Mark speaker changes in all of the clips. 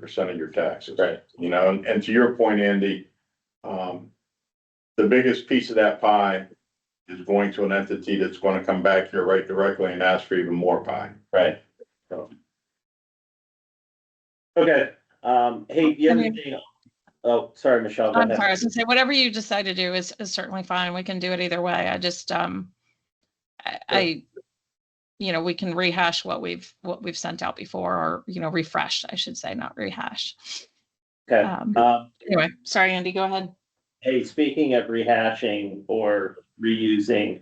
Speaker 1: percent of your taxes.
Speaker 2: Right.
Speaker 1: You know, and, and to your point, Andy, um, the biggest piece of that pie is going to an entity that's gonna come back here right directly and ask for even more pie.
Speaker 2: Right. So. Okay, um, hey, the other
Speaker 3: Okay.
Speaker 2: thing, oh, sorry, Michelle. go
Speaker 3: I'm
Speaker 2: ahead.
Speaker 3: sorry, I was gonna say, whatever you decide to do is, is certainly fine. We can do it either way. I just, um, I, I, you know, we can rehash what we've, what we've sent out before, or, you know, refresh, I should say, not rehash.
Speaker 2: Okay,
Speaker 3: Um,
Speaker 2: um,
Speaker 3: anyway, sorry, Andy, go ahead.
Speaker 2: hey, speaking of rehashing or reusing,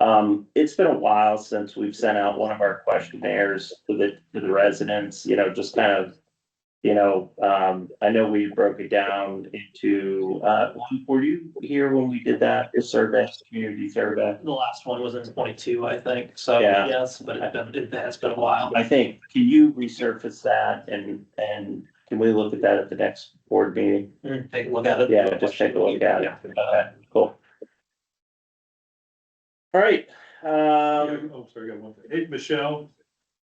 Speaker 2: um, it's been a while since we've sent out one of our questionnaires to the, to the residents, you know, just kind of, you know, um, I know we broke it down into, uh, were you here when we did that, the survey, community survey?
Speaker 4: The last one was in twenty-two, I think, so
Speaker 2: Yeah.
Speaker 4: yes, but it's been, it has been a while.
Speaker 2: I think, can you resurface that and, and can we look at that at the next board meeting?
Speaker 4: Mm, Take a look at it.
Speaker 2: Yeah, just take a look at it.
Speaker 4: Yeah.
Speaker 2: Okay, Uh, Cool. All right, um,
Speaker 5: Oh, sorry, I got one thing. Hey, Michelle,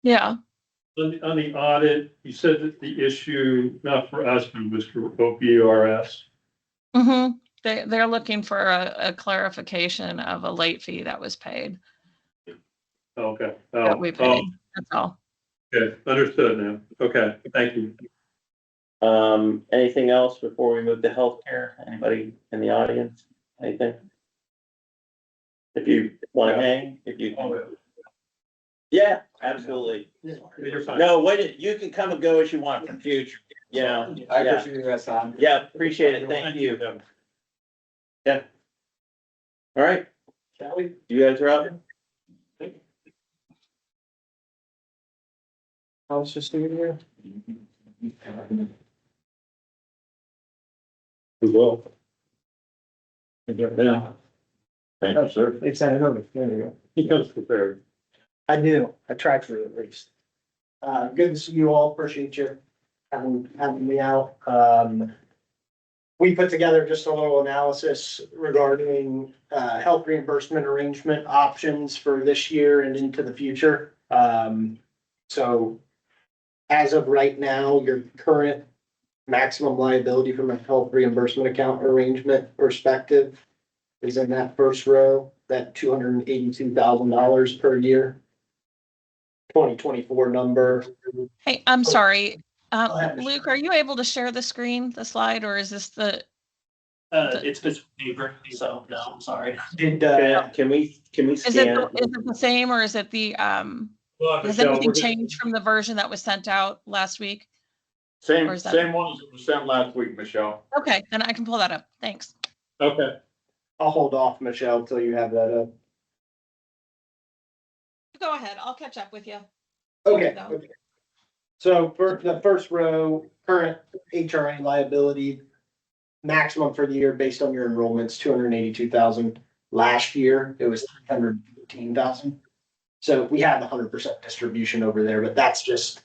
Speaker 3: Yeah,
Speaker 5: on the, on the audit, you said that the issue, not for us, but was for OPRS.
Speaker 3: hmm They, they're looking for a, a clarification of a late fee that was paid,
Speaker 5: Okay. Oh,
Speaker 3: that we
Speaker 5: oh,
Speaker 3: paid. That's all.
Speaker 5: okay, understood now. Okay, thank you.
Speaker 2: um, anything else before we move to healthcare? Anybody in the audience? Anything? If you want to hang, if you. Yeah, absolutely.
Speaker 5: You're fine.
Speaker 2: No, wait, you can come and go as you want in the future, you know?
Speaker 4: Yeah.
Speaker 6: I
Speaker 2: Yeah.
Speaker 6: appreciate you guys' time.
Speaker 2: Yeah, appreciate it. Thank you. All right,
Speaker 4: Shall we?
Speaker 2: you guys are up.
Speaker 6: I was just doing here.
Speaker 2: We will.
Speaker 6: Yeah.
Speaker 1: Thank you, sir.
Speaker 6: They sent it over. There you go.
Speaker 5: He comes prepared.
Speaker 6: I do. I tried for it at least. Uh, good to see you all. Appreciate you having, having me out. Um, we put together just a little analysis regarding, uh, health reimbursement arrangement options for this year and into the future. Um, so as of right now, your current maximum liability from a health reimbursement account arrangement perspective is in that first row, that two hundred and eighty-two thousand dollars per year. Twenty twenty-four number.
Speaker 3: Hey, I'm sorry.
Speaker 6: Go ahead,
Speaker 3: Um,
Speaker 6: Michelle.
Speaker 3: Luke, are you able to share the screen, the slide, or is this the,
Speaker 4: Uh, it's been paper, so no, I'm sorry.
Speaker 6: Did, uh,
Speaker 2: Can can we, can we
Speaker 3: Is it,
Speaker 2: scan?
Speaker 3: the- is it the same or is it the, um, has
Speaker 5: Michelle,
Speaker 3: anything
Speaker 5: we're gonna-
Speaker 3: changed from the version that was sent out last week? Or
Speaker 1: Same,
Speaker 3: is that-
Speaker 1: same one as it was sent last week, Michelle.
Speaker 3: Okay, then I can pull that up. Thanks.
Speaker 5: Okay,
Speaker 6: I'll hold off, Michelle, till you have that up.
Speaker 3: Go ahead. I'll catch up with you.
Speaker 6: Okay.
Speaker 3: No.
Speaker 6: okay. So for the first row, current HRA liability, maximum for the year based on your enrollments, two hundred and eighty-two thousand. Last year, it was three hundred and fifteen thousand. So we have the hundred percent distribution over there, but that's just,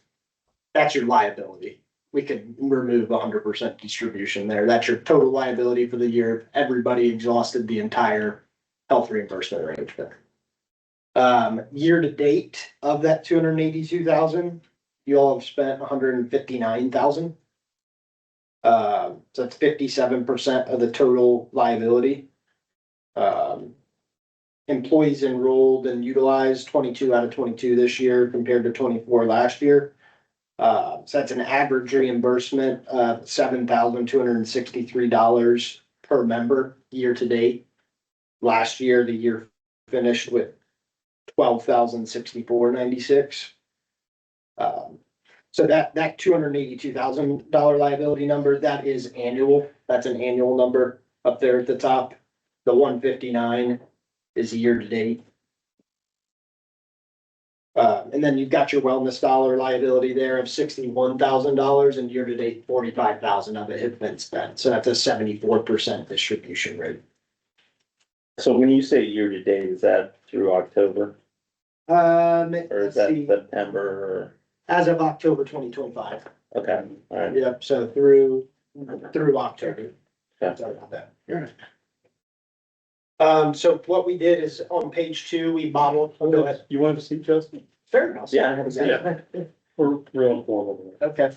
Speaker 6: that's your liability. We could remove hundred percent distribution there. That's your total liability for the year. if Everybody exhausted the entire health reimbursement arrangement. Um, year to date of that two hundred and eighty-two thousand, you all have spent hundred and fifty-nine thousand. Uh, so that's fifty-seven percent of the total liability. Um. Employees enrolled and utilized twenty-two out of twenty-two this year compared to twenty-four last year. Uh, so that's an average reimbursement of seven thousand two hundred and sixty-three dollars per member year to date. Last year, the year finished with twelve thousand sixty-four ninety-six. Um, so that, that two hundred and eighty-two thousand dollar liability number, that is annual, that's an annual number up there at the top. The one fifty-nine is year-to-date. Uh, and then you've got your wellness dollar liability there of sixty-one thousand dollars and year-to-date forty-five thousand of it has been spent, so that's a seventy-four percent distribution rate.
Speaker 2: So when you say year to date, is that through October
Speaker 6: Um,
Speaker 2: or is
Speaker 6: let's
Speaker 2: that
Speaker 6: see,
Speaker 2: September
Speaker 6: as of October twenty twenty-five.
Speaker 2: or, okay, all right.
Speaker 6: Yep, so through, through October.
Speaker 2: Yeah.
Speaker 6: Sorry about that. Um, so what we did is on page two, we modeled, oh, go ahead.
Speaker 5: you wanted to see Justin?
Speaker 6: Fair enough.
Speaker 2: Yeah, I haven't seen
Speaker 5: We're real informal.
Speaker 6: Okay.